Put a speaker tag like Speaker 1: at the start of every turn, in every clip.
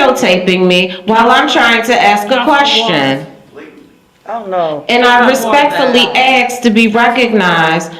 Speaker 1: videotaping me while I'm trying to ask a question.
Speaker 2: Oh, no.
Speaker 1: And I respectfully ask to be recognized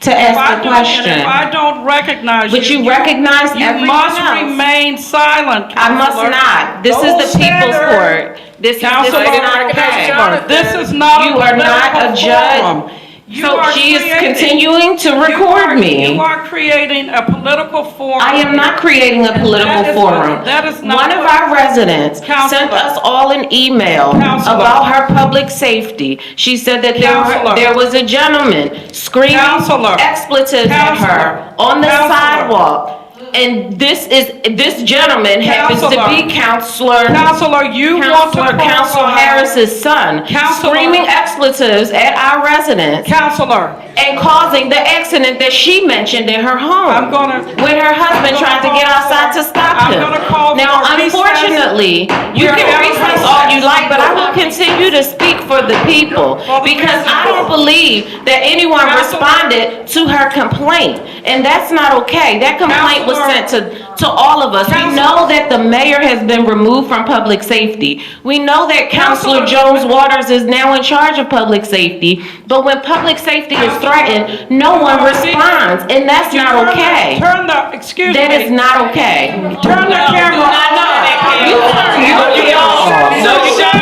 Speaker 1: to
Speaker 3: If I
Speaker 1: ask the
Speaker 3: don't- and If I
Speaker 1: question.
Speaker 3: don't recognize you.
Speaker 1: But you recognize
Speaker 3: You
Speaker 1: everyone
Speaker 3: must
Speaker 1: else.
Speaker 3: remain silent,
Speaker 1: I must
Speaker 3: Counselor.
Speaker 1: not. This is the people's court. This is, this
Speaker 3: Counselor,
Speaker 1: is not okay.
Speaker 3: This is not a
Speaker 1: You are not a
Speaker 3: political forum.
Speaker 1: judge.
Speaker 3: You
Speaker 1: So
Speaker 3: are
Speaker 1: she is
Speaker 3: creating-
Speaker 1: continuing to
Speaker 3: you are-
Speaker 1: record me.
Speaker 3: You are creating a political forum.
Speaker 1: I am not creating a political
Speaker 3: That is-
Speaker 1: forum.
Speaker 3: that is not
Speaker 1: One of
Speaker 3: what-
Speaker 1: our residents sent
Speaker 3: Counselor.
Speaker 1: us all an email
Speaker 3: Counselor.
Speaker 1: about her public safety. She said that there, were-
Speaker 3: Counselor.
Speaker 1: there was a gentleman screaming
Speaker 3: Counselor.
Speaker 1: expletives at her
Speaker 3: Counselor.
Speaker 1: on the
Speaker 3: Counselor.
Speaker 1: sidewalk. And this is, this gentleman happens to be Counselor,
Speaker 3: Counselor, you want to.
Speaker 1: Counselor Counsel
Speaker 3: profile-
Speaker 1: Harris's son,
Speaker 3: Counselor.
Speaker 1: screaming expletives at our residents
Speaker 3: Counselor,
Speaker 1: and causing the accident that she mentioned in her home.
Speaker 3: I'm gonna-
Speaker 1: With her husband
Speaker 3: I'm gonna
Speaker 1: trying to get
Speaker 3: call
Speaker 1: outside to
Speaker 3: for-
Speaker 1: stop
Speaker 3: I'm
Speaker 1: him.
Speaker 3: gonna call
Speaker 1: Now,
Speaker 3: for a recess.
Speaker 1: unfortunately, you
Speaker 3: We're
Speaker 1: can
Speaker 3: having a
Speaker 1: recess all you
Speaker 3: recess.
Speaker 1: like, but I will continue to speak for the people.
Speaker 3: For the
Speaker 1: Because I
Speaker 3: people.
Speaker 1: don't believe that anyone
Speaker 3: Counselor.
Speaker 1: responded to her complaint. And that's not okay. That complaint was
Speaker 3: Counselor.
Speaker 1: sent to, to all of us. We
Speaker 3: Counselor.
Speaker 1: know that the mayor has been removed from public safety. We know that Counselor
Speaker 3: Counselor.
Speaker 1: Jones Waters is now in charge of public safety. But when public safety is threatened, no one responds, and that's
Speaker 3: you
Speaker 1: not
Speaker 3: turn the-
Speaker 1: okay.
Speaker 3: Turn the, excuse me.
Speaker 1: That is not okay.
Speaker 3: Turn the
Speaker 1: No,
Speaker 3: camera
Speaker 1: you turn your
Speaker 3: You
Speaker 1: video off.
Speaker 3: No, you don't.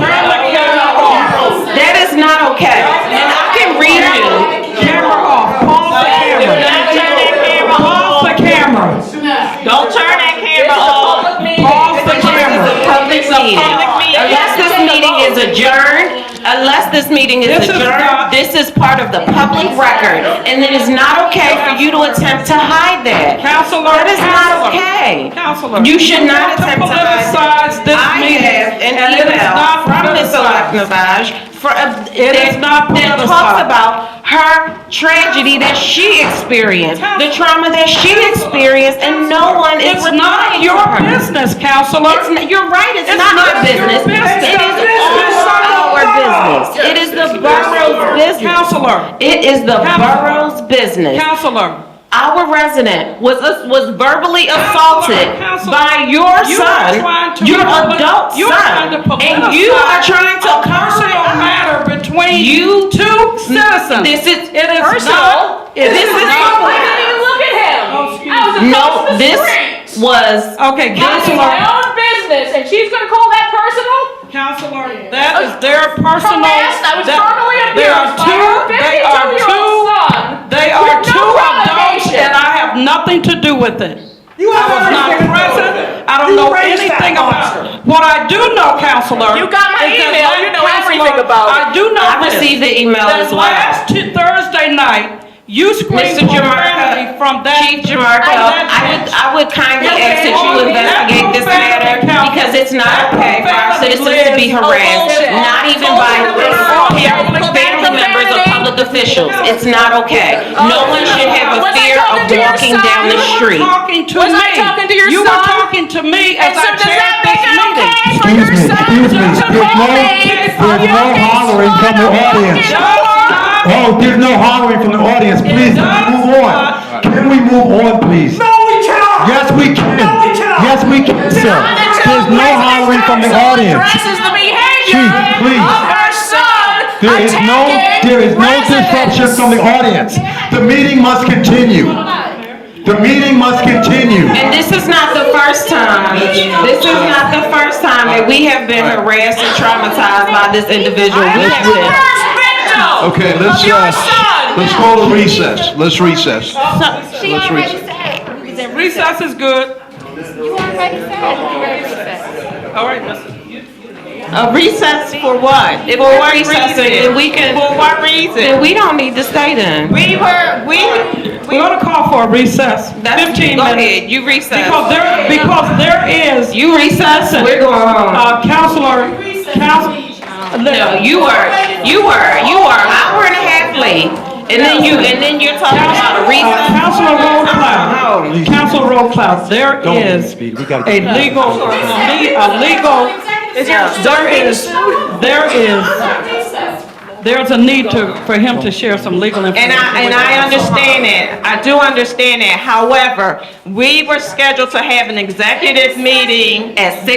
Speaker 3: Turn the camera off.
Speaker 1: That is not okay. And I can read you.
Speaker 3: Camera off. Pause the camera. Pause the camera.
Speaker 4: Don't turn that camera off.
Speaker 3: Pause the camera.
Speaker 1: Public meeting. Unless this meeting is adjourned, unless this meeting is
Speaker 3: This is
Speaker 1: adjourned,
Speaker 3: not-
Speaker 1: this is part of the public record. And it is not okay for you to attempt to hide that.
Speaker 3: Counselor.
Speaker 1: That is not
Speaker 3: Counselor.
Speaker 1: okay.
Speaker 3: Counselor.
Speaker 1: You should not attempt to
Speaker 3: politicize this meeting.
Speaker 1: I have an
Speaker 3: and it is
Speaker 1: email
Speaker 3: not
Speaker 1: from Ms.
Speaker 3: politicized.
Speaker 1: Lacknavage for, uh,
Speaker 3: It is
Speaker 1: that,
Speaker 3: not
Speaker 1: that talks
Speaker 3: politicized.
Speaker 1: about her tragedy that she experienced, the trauma that she experienced, and no one is
Speaker 3: It's not
Speaker 1: replying to
Speaker 3: your
Speaker 1: her.
Speaker 3: business, counselor.
Speaker 1: It's not, you're right, it's
Speaker 3: It's
Speaker 1: not
Speaker 3: not
Speaker 1: my
Speaker 3: your
Speaker 1: business.
Speaker 3: business.
Speaker 1: It is all our business. It is the borough's business.
Speaker 3: Counselor,
Speaker 1: It is the
Speaker 3: Counselor.
Speaker 1: borough's business.
Speaker 3: counselor.
Speaker 1: Our resident was was verbally
Speaker 3: Counselor,
Speaker 1: assaulted
Speaker 3: counselor,
Speaker 1: by your
Speaker 3: you
Speaker 1: son,
Speaker 3: are trying to
Speaker 1: your
Speaker 3: public-
Speaker 1: adult
Speaker 3: you're
Speaker 1: son,
Speaker 3: trying to
Speaker 1: and you are
Speaker 3: politicize
Speaker 1: trying to
Speaker 3: a
Speaker 1: cover
Speaker 3: personal
Speaker 1: up.
Speaker 3: matter between
Speaker 1: You-
Speaker 3: two citizens.
Speaker 1: This is
Speaker 3: It is
Speaker 1: personal.
Speaker 3: not- it
Speaker 1: This
Speaker 3: is
Speaker 1: is
Speaker 3: not-
Speaker 1: public.
Speaker 4: look
Speaker 3: Oh,
Speaker 4: at him.
Speaker 3: excuse
Speaker 4: I was
Speaker 3: me.
Speaker 4: a
Speaker 1: No,
Speaker 4: close to
Speaker 1: this
Speaker 4: scream.
Speaker 1: was
Speaker 3: Okay,
Speaker 4: That is
Speaker 3: counselor,
Speaker 4: my own business, and she's gonna call that personal?
Speaker 3: counselor, that is their personal.
Speaker 4: Harassed, I was
Speaker 3: that-
Speaker 4: verbally
Speaker 3: They are
Speaker 4: abused by
Speaker 3: two,
Speaker 4: her
Speaker 3: they are two,
Speaker 4: fifty-two-year-old son.
Speaker 3: they are
Speaker 4: with no
Speaker 3: two adults
Speaker 4: relegation.
Speaker 3: and I have nothing to do with it.
Speaker 5: You
Speaker 3: I was not
Speaker 5: understand that.
Speaker 3: present, I don't
Speaker 5: You
Speaker 3: know
Speaker 5: raised that
Speaker 3: anything
Speaker 5: monster.
Speaker 3: about it. What I do know, counselor.
Speaker 4: You got my
Speaker 3: is that
Speaker 4: email.
Speaker 3: last
Speaker 4: You know everything
Speaker 3: counselor,
Speaker 4: about it.
Speaker 3: I do know
Speaker 1: I
Speaker 3: this.
Speaker 1: received the email
Speaker 3: That
Speaker 1: as well.
Speaker 3: last Tu- Thursday night, you screamed
Speaker 1: Mr.
Speaker 3: profanity
Speaker 1: Jamarca,
Speaker 3: from that.
Speaker 1: Chief Jamarca, I would, I would kindly
Speaker 3: Okay,
Speaker 1: ask that you
Speaker 3: all these-
Speaker 1: investigate this
Speaker 3: that's
Speaker 1: matter
Speaker 3: profanity, Council.
Speaker 1: because it's not
Speaker 3: That's
Speaker 1: okay for our
Speaker 3: profanity,
Speaker 1: citizens to be
Speaker 3: Liz.
Speaker 1: harassed,
Speaker 4: bullshit.
Speaker 1: not even
Speaker 4: Bullshit.
Speaker 1: by
Speaker 4: Bullshit.
Speaker 1: family
Speaker 4: Bullshit.
Speaker 1: family members or
Speaker 4: Bullshit.
Speaker 1: public officials. It's not okay. No one should have a
Speaker 4: Was I
Speaker 1: fear of
Speaker 4: talking to your
Speaker 1: walking
Speaker 4: son?
Speaker 1: down the
Speaker 4: You were
Speaker 3: You
Speaker 1: street.
Speaker 3: were talking to me.
Speaker 4: Was I talking to your
Speaker 3: You were
Speaker 4: son?
Speaker 3: talking to me as
Speaker 4: And so
Speaker 3: I
Speaker 4: does that
Speaker 3: chaired
Speaker 4: make
Speaker 3: this
Speaker 4: it
Speaker 3: meeting.
Speaker 4: okay for
Speaker 6: Excuse
Speaker 4: your
Speaker 6: me,
Speaker 4: son
Speaker 6: excuse me.
Speaker 4: to
Speaker 6: There's no-
Speaker 4: profanate
Speaker 6: there's
Speaker 4: your
Speaker 6: no
Speaker 4: big
Speaker 6: hollering from
Speaker 4: son
Speaker 6: the
Speaker 4: of a
Speaker 6: audience.
Speaker 4: fucking
Speaker 3: Don't
Speaker 4: whore?
Speaker 3: stop.
Speaker 6: Oh, there's no hollering from the audience. Please, can we move on? Can we move on, please?
Speaker 5: No, we cannot.
Speaker 6: Yes, we can.
Speaker 5: No, we cannot.
Speaker 6: Yes, we can, sir.
Speaker 4: On the two
Speaker 6: There's no
Speaker 4: presidents
Speaker 6: hollering from the
Speaker 4: council
Speaker 6: audience.
Speaker 4: Addresses the behavior
Speaker 6: Chief, please.
Speaker 4: of her son
Speaker 6: There is no,
Speaker 4: attacking
Speaker 6: there is no
Speaker 4: residents.
Speaker 6: disruption from the audience. The meeting must continue. The meeting must continue.
Speaker 1: And this is not the first time, this is not the first time that we have been harassed and traumatized by this individual.
Speaker 4: I
Speaker 1: We
Speaker 4: am
Speaker 1: have
Speaker 4: the
Speaker 1: been.
Speaker 4: first victim
Speaker 7: Okay, let's,
Speaker 4: of your
Speaker 7: uh,
Speaker 4: son.
Speaker 7: let's call a recess. Let's recess.
Speaker 8: She
Speaker 7: Let's
Speaker 8: already
Speaker 7: reset.
Speaker 8: said. We was in recess.
Speaker 3: Recess is good.
Speaker 8: You already said we were in recess.
Speaker 3: All right, listen.
Speaker 1: A recess for what? If we're recessing, then we can. For what reason? Then we don't need to stay then.
Speaker 4: We were, we,
Speaker 3: We're gonna call for a recess,
Speaker 1: That's-
Speaker 3: fifteen
Speaker 1: Go
Speaker 3: minutes.
Speaker 1: ahead, you recess.
Speaker 3: Because there, because there is,
Speaker 1: You recess, we're going home.
Speaker 3: uh, counselor, counsel.
Speaker 1: No, you were, you were, you were an hour and a half late, and then you, and then you're talking about a
Speaker 3: Uh,
Speaker 1: recess.
Speaker 3: Counselor Roll Cloud, Counselor Roll Cloud, there is a legal, le- a legal, there is, there is there's a need to, for him to share some legal information.
Speaker 1: And I, and
Speaker 3: with
Speaker 1: I
Speaker 3: us.
Speaker 1: understand that, I do understand that, however, we were scheduled to have an executive meeting at six